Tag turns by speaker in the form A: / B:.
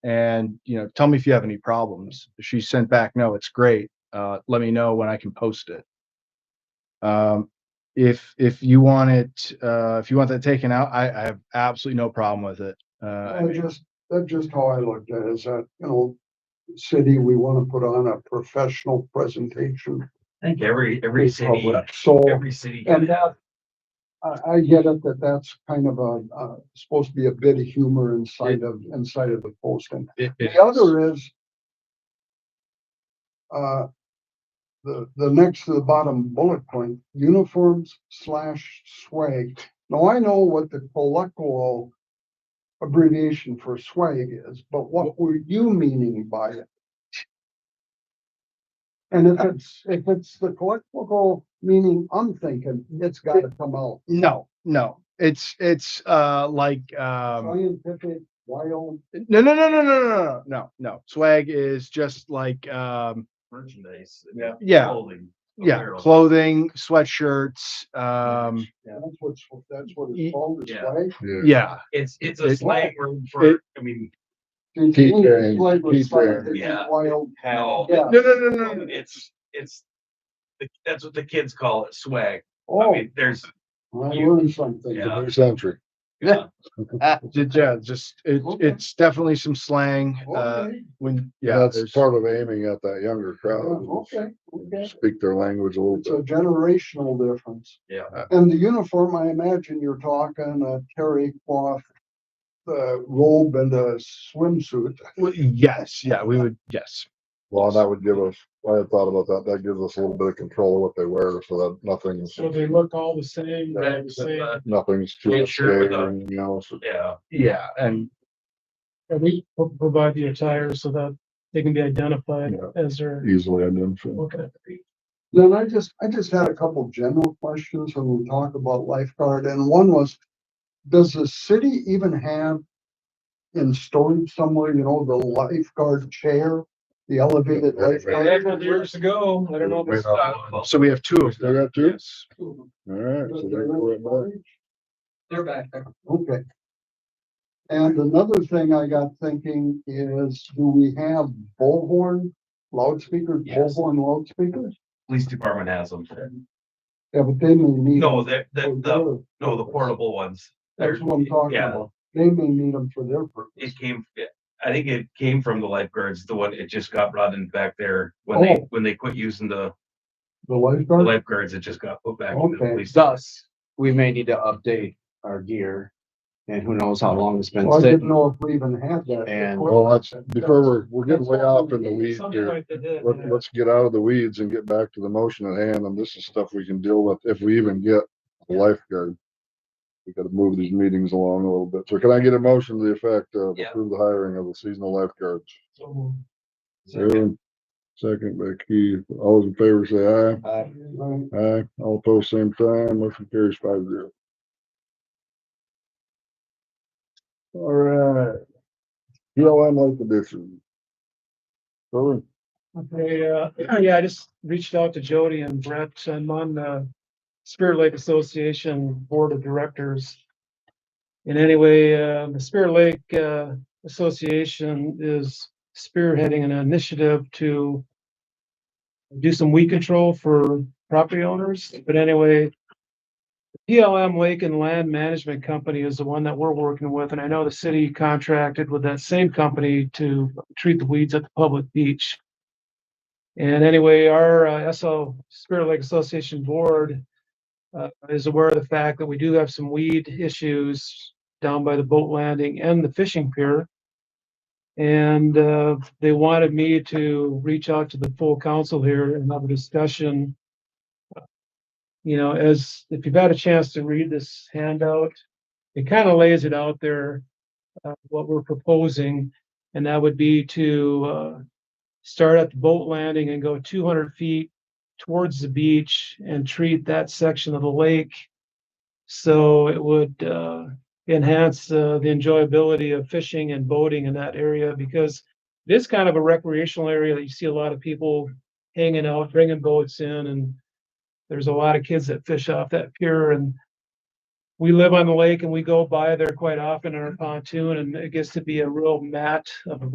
A: and you know tell me if you have any problems she sent back no it's great uh, let me know when i can post it um, if if you want it uh, if you want that taken out i, I have absolutely no problem with it uh,
B: I just, that's just how I looked at it, is that, you know, city, we want to put on a professional presentation.
C: I think every, every
B: to
C: city,
B: public. So
C: every city.
B: And that, I, I get it that that's kind of a, uh, supposed to be a bit of humor inside of, inside of the posting.
A: it- it-
B: The other is uh, the, the next to the bottom bullet point, uniforms slash swag. Now, I know what the colloquial abbreviation for swag is, but what were you meaning by it? And if it's, if it's the colloquial meaning I'm thinking, it's gotta come out.
A: no no it's it's uh like um
B: Scientific, wild,
A: no no no no no no no no no swag is just like um
C: Merchandise.
B: Yeah.
A: yeah
C: clothing,
A: yeah
C: apparel.
A: clothing sweatshirts um
C: Yeah.
B: that's what's, that's what
A: Ye-
B: it's called, is
C: yeah.
B: swag.
A: yeah
C: It's, it's a
A: It-
C: slang word for, I mean,
B: Keith
D: Keith Keith
C: Yeah.
B: Wild.
C: no,
B: Yeah.
A: no no no no, no.
C: it's, it's, that's what the kids call it, swag. I
B: Oh, I
C: mean, there's,
B: learned something.
C: Yeah.
D: New century.
C: yeah,
A: yeah just it,
B: Okay.
A: it's definitely some slang uh
B: Okay,
A: when yeah
D: That's
A: there's-
D: part of aiming at that younger
B: yeah,
E: Oh,
D: crowd.
B: okay, okay.
D: Speak their language a
B: It's a
D: little
B: generational difference.
C: Yeah.
B: And the uniform, I imagine you're talking a terry cloth, uh, robe and a swimsuit.
A: Well, yes, yeah, we would, yes.
D: Well, and that would give us, I had thought about that. That gives us a little bit of control of what they wear so that nothing's,
E: So they look all the same, they're the same,
C: uh,
D: nothing's too
C: Yeah,
D: much
C: sure, with
D: there, you know, so
C: yeah,
A: Yeah, and
E: and we pro- provide the attire so that they can be identified
D: Yeah.
E: as their,
D: easily identified.
E: okay.
B: Then I just, I just had a couple general questions when we talk about lifeguard, and one was, does the city even have in storage somewhere, you know, the lifeguard chair, the elevated
D: Yeah, right.
B: lifeguard?
E: years ago, I don't know.
D: Wait, uh,
C: Uh,
A: so we have two of
D: You
A: them.
D: got two?
A: Yes.
B: Does
D: All right. so they go right back.
B: the Okay. And another thing I got thinking is, do we have bullhorn loudspeakers,
C: Yes.
B: bullhorn loudspeakers?
C: police department has them.
B: Yeah, but they may need.
C: No, the, the, the,
B: for
C: no, the portable ones.
B: their- Oh, That's what I'm talking
C: Yeah,
B: about. They may need them for their purpose.
C: It came, I think it came from the lifeguards, the one, it just got brought in back there when they,
B: Oh.
C: when they quit using the
B: The
C: the
B: lifeguard?
C: lifeguards, it just got put back in the
B: Okay.
C: police.
F: Thus, we may need to update our gear and who knows how long it's been
B: Well, I didn't
F: sitting.
B: know if we even had that.
F: And-
D: Well, that's, before we're, we're getting way off in the weeds here. Let, let's get out of the weeds and get back to the motion at hand. And this is stuff we can deal with if we even get a lifeguard. We gotta move these meetings along a little bit. So can I get a motion to the effect of
C: Yeah.
D: approve the hiring of the seasonal lifeguards?
C: Second.
D: Aaron, Second by Keith. All those in favor say
F: Uh,
B: Right.
D: aye. Aye. All opposed, same sign. Motion carries five zero. All right. BLM Lake Edition. Brother,
E: Okay, uh, yeah, I just reached out to Jody and Brett. I'm on the Spirit Lake Association Board of Directors. And anyway, uh, the Spirit Lake, uh, Association is spearheading an initiative to do some weed control for property owners. But anyway, PLM Lake and Land Management Company is the one that we're working with. And I know the city contracted with that same company to treat the weeds at the public beach. And anyway, our uh, SL Spirit Lake Association Board uh, is aware of the fact that we do have some weed issues down by the boat landing and the fishing pier. And uh, they wanted me to reach out to the full council here and have a discussion. You know, as if you've had a chance to read this handout, it kind of lays it out there, uh, what we're proposing. And that would be to uh, start at the boat landing and go two hundred feet towards the beach and treat that section of the lake. So it would uh, enhance uh, the enjoyability of fishing and boating in that area because it is kind of a recreational area that you see a lot of people hanging out, bringing boats in, and there's a lot of kids that fish off that pier and we live on the lake and we go by there quite often in our pontoon and it gets to be a real mat of